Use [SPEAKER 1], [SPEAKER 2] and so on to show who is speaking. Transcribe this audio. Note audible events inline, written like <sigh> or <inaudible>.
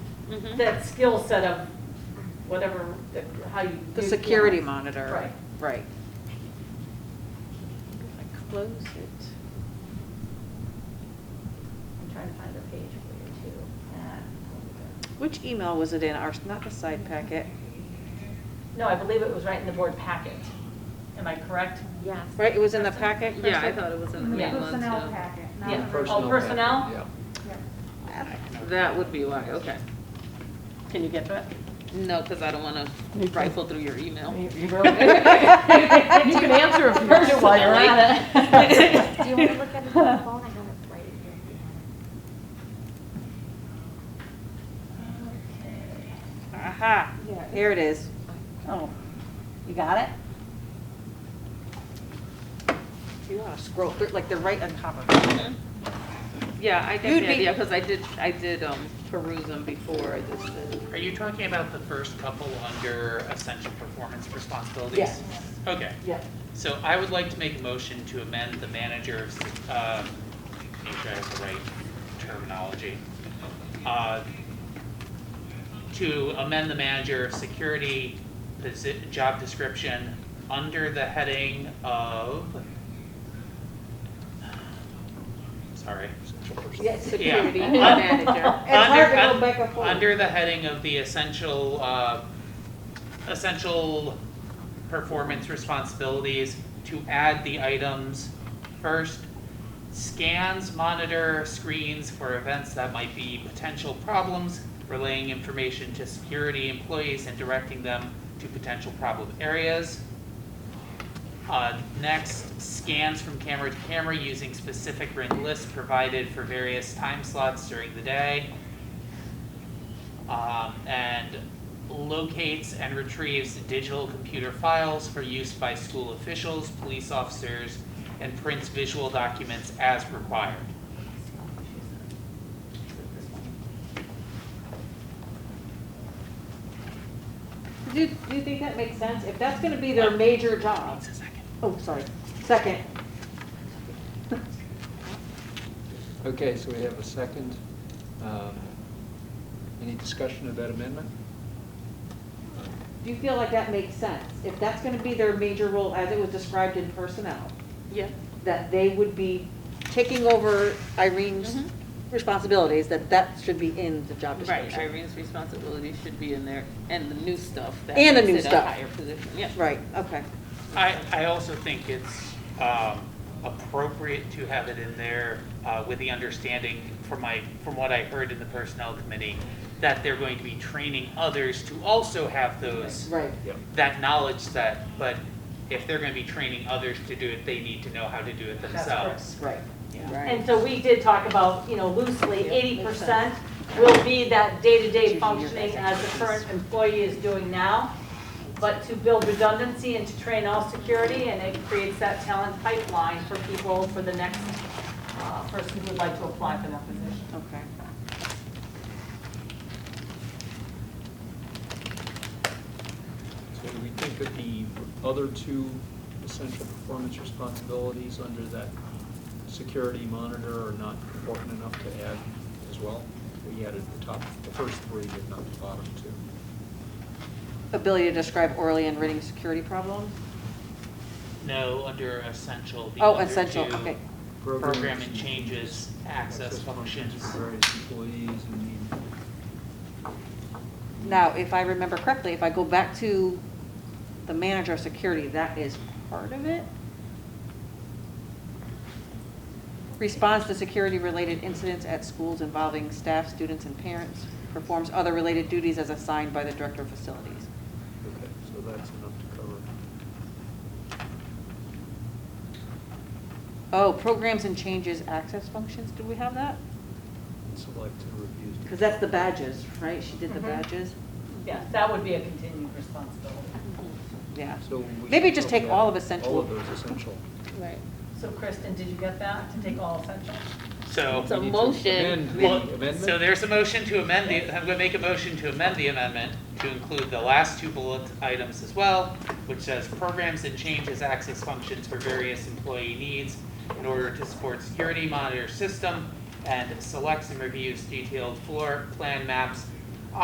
[SPEAKER 1] Mhm.
[SPEAKER 2] that skill set of whatever, the- how you.
[SPEAKER 3] The
[SPEAKER 2] you-
[SPEAKER 3] security monitor.
[SPEAKER 2] Right.
[SPEAKER 3] Right. I Close it.
[SPEAKER 1] I'm trying to find the page for you too. Ah, over
[SPEAKER 3] Which email was it in? Our, not the side packet,
[SPEAKER 2] there. No, I believe it was right in the board packet. Am I correct?
[SPEAKER 1] there. Yes.
[SPEAKER 3] right? It was in the packet, Krista?
[SPEAKER 4] Yeah, I thought it was in the
[SPEAKER 2] Yeah.
[SPEAKER 4] main one,
[SPEAKER 5] Personnel
[SPEAKER 4] too.
[SPEAKER 5] packet, not
[SPEAKER 2] Yeah.
[SPEAKER 5] the-
[SPEAKER 2] Personnel. Oh, personnel?
[SPEAKER 6] Yeah.
[SPEAKER 5] yeah.
[SPEAKER 4] That would be why, okay. Can you get that? No, because I don't want to rifle through your email.
[SPEAKER 2] You can answer if you want to while you're at it.
[SPEAKER 1] Do you want to look at it on
[SPEAKER 2] <laughs>
[SPEAKER 1] the phone? I have it right here. if you want it.
[SPEAKER 3] Aha, here it is.
[SPEAKER 7] Oh, you got it?
[SPEAKER 3] You want to scroll through, like they're right on top of it.
[SPEAKER 4] Yeah, I
[SPEAKER 3] You'd
[SPEAKER 4] get the
[SPEAKER 3] be-
[SPEAKER 4] idea, because I did, I did um, peruse them before I just did.
[SPEAKER 8] Are you talking about the first couple under essential performance responsibilities?
[SPEAKER 2] Yes.
[SPEAKER 8] Okay,
[SPEAKER 2] Yeah.
[SPEAKER 8] so I would like to make a motion to amend the manager's, um, make sure I have the right terminology. Uh, To amend the manager of security posi- job description under the heading of, sorry.
[SPEAKER 3] Security
[SPEAKER 8] Yeah.
[SPEAKER 3] <laughs> manager.
[SPEAKER 7] It's hard to
[SPEAKER 8] Under-
[SPEAKER 7] go back and forth.
[SPEAKER 8] Under the heading of the essential, uh, essential performance responsibilities, to add the items first, scans, monitor, screens for events that might be potential problems, relaying information to security employees and directing them to potential problem areas. Uh, next, scans from camera to camera using specific ring lists provided for various time slots during the day. Um, and locates and retrieves digital computer files for use by school officials, police officers, and prints visual documents as required.
[SPEAKER 3] Do, do you think that makes sense? If that's going to be their major job,
[SPEAKER 8] Needs a second.
[SPEAKER 3] oh, sorry, second.
[SPEAKER 6] Okay, so we have a second. Um, Any discussion of that amendment?
[SPEAKER 3] Do you feel like that makes sense? If that's going to be their major role as it was described in personnel,
[SPEAKER 4] Yeah.
[SPEAKER 3] that they would be taking over Irene's
[SPEAKER 4] Mhm.
[SPEAKER 2] Mm-hmm.
[SPEAKER 3] responsibilities, that that should be in the job
[SPEAKER 4] Right,
[SPEAKER 3] description.
[SPEAKER 4] Irene's responsibility should be in there, and the new stuff. that
[SPEAKER 3] And the
[SPEAKER 4] makes
[SPEAKER 3] new
[SPEAKER 4] it a
[SPEAKER 3] stuff.
[SPEAKER 4] Higher position, yeah.
[SPEAKER 3] Right, okay.
[SPEAKER 8] I, I also think it's um, appropriate to have it in there uh, with the understanding from my, from what I heard in the personnel committee, that they're going to be training others to also have those,
[SPEAKER 3] Right.
[SPEAKER 8] that knowledge set, but if they're going to be training others to do it, they need to know how to do it
[SPEAKER 2] That's
[SPEAKER 8] themselves.
[SPEAKER 3] Right.
[SPEAKER 2] And so we did talk about, you know, loosely,
[SPEAKER 3] Yeah,
[SPEAKER 2] eighty
[SPEAKER 3] makes
[SPEAKER 2] percent
[SPEAKER 3] sense.
[SPEAKER 2] will be that day-to-day
[SPEAKER 3] your
[SPEAKER 2] functioning as the current employee is doing now. But to build redundancy and to train all security, and it creates that talent pipeline for people, for the next uh, person who would like to apply for that position.
[SPEAKER 3] Okay.
[SPEAKER 6] So do we think that the other two essential performance responsibilities under that security monitor are not important enough to add as well? We added the top, the first three, but not the bottom two.
[SPEAKER 3] Ability to describe orally and written security problems?
[SPEAKER 8] No, under essential, the
[SPEAKER 3] Oh,
[SPEAKER 8] other
[SPEAKER 3] essential,
[SPEAKER 8] two,
[SPEAKER 3] okay.
[SPEAKER 8] Program and changes, access functions.
[SPEAKER 6] for Various employees and the
[SPEAKER 3] Now, if I remember correctly, if I go back to the manager of security, that is part of it? Responds to security-related incidents at schools involving staff, students, and parents. Performs other related duties as assigned by the director of facilities.
[SPEAKER 6] Okay, so that's enough to cover.
[SPEAKER 3] Oh, programs and changes, access functions, do we have that?
[SPEAKER 6] Select and review.
[SPEAKER 3] Because that's the badges, right? She
[SPEAKER 4] Mm-hmm.
[SPEAKER 3] did the badges?
[SPEAKER 2] Yes, that would be a continued responsibility.
[SPEAKER 3] Yeah.
[SPEAKER 6] So we
[SPEAKER 3] Maybe
[SPEAKER 6] should
[SPEAKER 3] just
[SPEAKER 6] probably
[SPEAKER 3] take all
[SPEAKER 6] add
[SPEAKER 3] of essential.
[SPEAKER 6] All of those essential.
[SPEAKER 4] Right.
[SPEAKER 2] So Kristen, did you get that, to take all essential?
[SPEAKER 8] So.
[SPEAKER 4] So
[SPEAKER 6] We need to
[SPEAKER 4] motion-
[SPEAKER 6] amend the
[SPEAKER 8] Well, So
[SPEAKER 6] Amendment?
[SPEAKER 8] there's a motion to amend the, I'm gonna make a motion to amend the amendment to include the last two bullet items as well, which says programs and changes access functions for various employee needs in order to support security monitor system and selects and reviews detailed floor plan maps